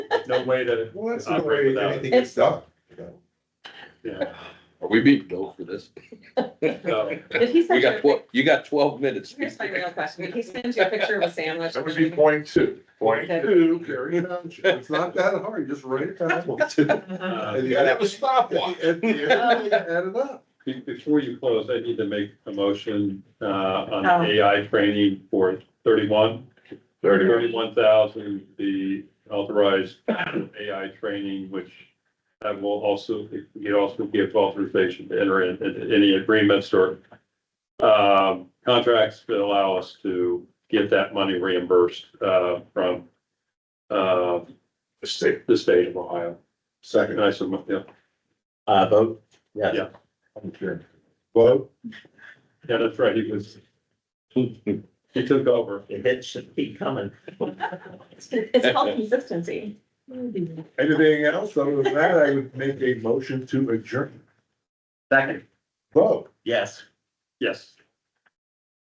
no way to, Well, that's the Operate way without it. anything gets done. you know. yeah, Are we being billed for this? so, Did he We send you, got a pic- twelve, you got twelve minutes. here's my real question, did he send you a picture of a sandwich? That would be point two. Point Okay. two, Gary Township. It's not that hard, just write it down. uh, And you Yeah, gotta- that was stopwatch. At the end, you add it up. be- before you close, I need to make a motion, uh, Oh. on AI training for thirty-one. Thirty-one thousand, the authorized AI training, which that will also, you also give authorization to enter in- into any agreements or um, contracts that allow us to get that money reimbursed, uh, from, uh, State. the state of Ohio. And Second. I said, yeah, Uh, vote? Yes. Yeah. I'm sure. Vote. yeah, that's right, he was, It he took over. should be coming. It's it's called consistency. Anything else? Other than that, I would make a motion to adjourn. Second, Vote. yes. Yes.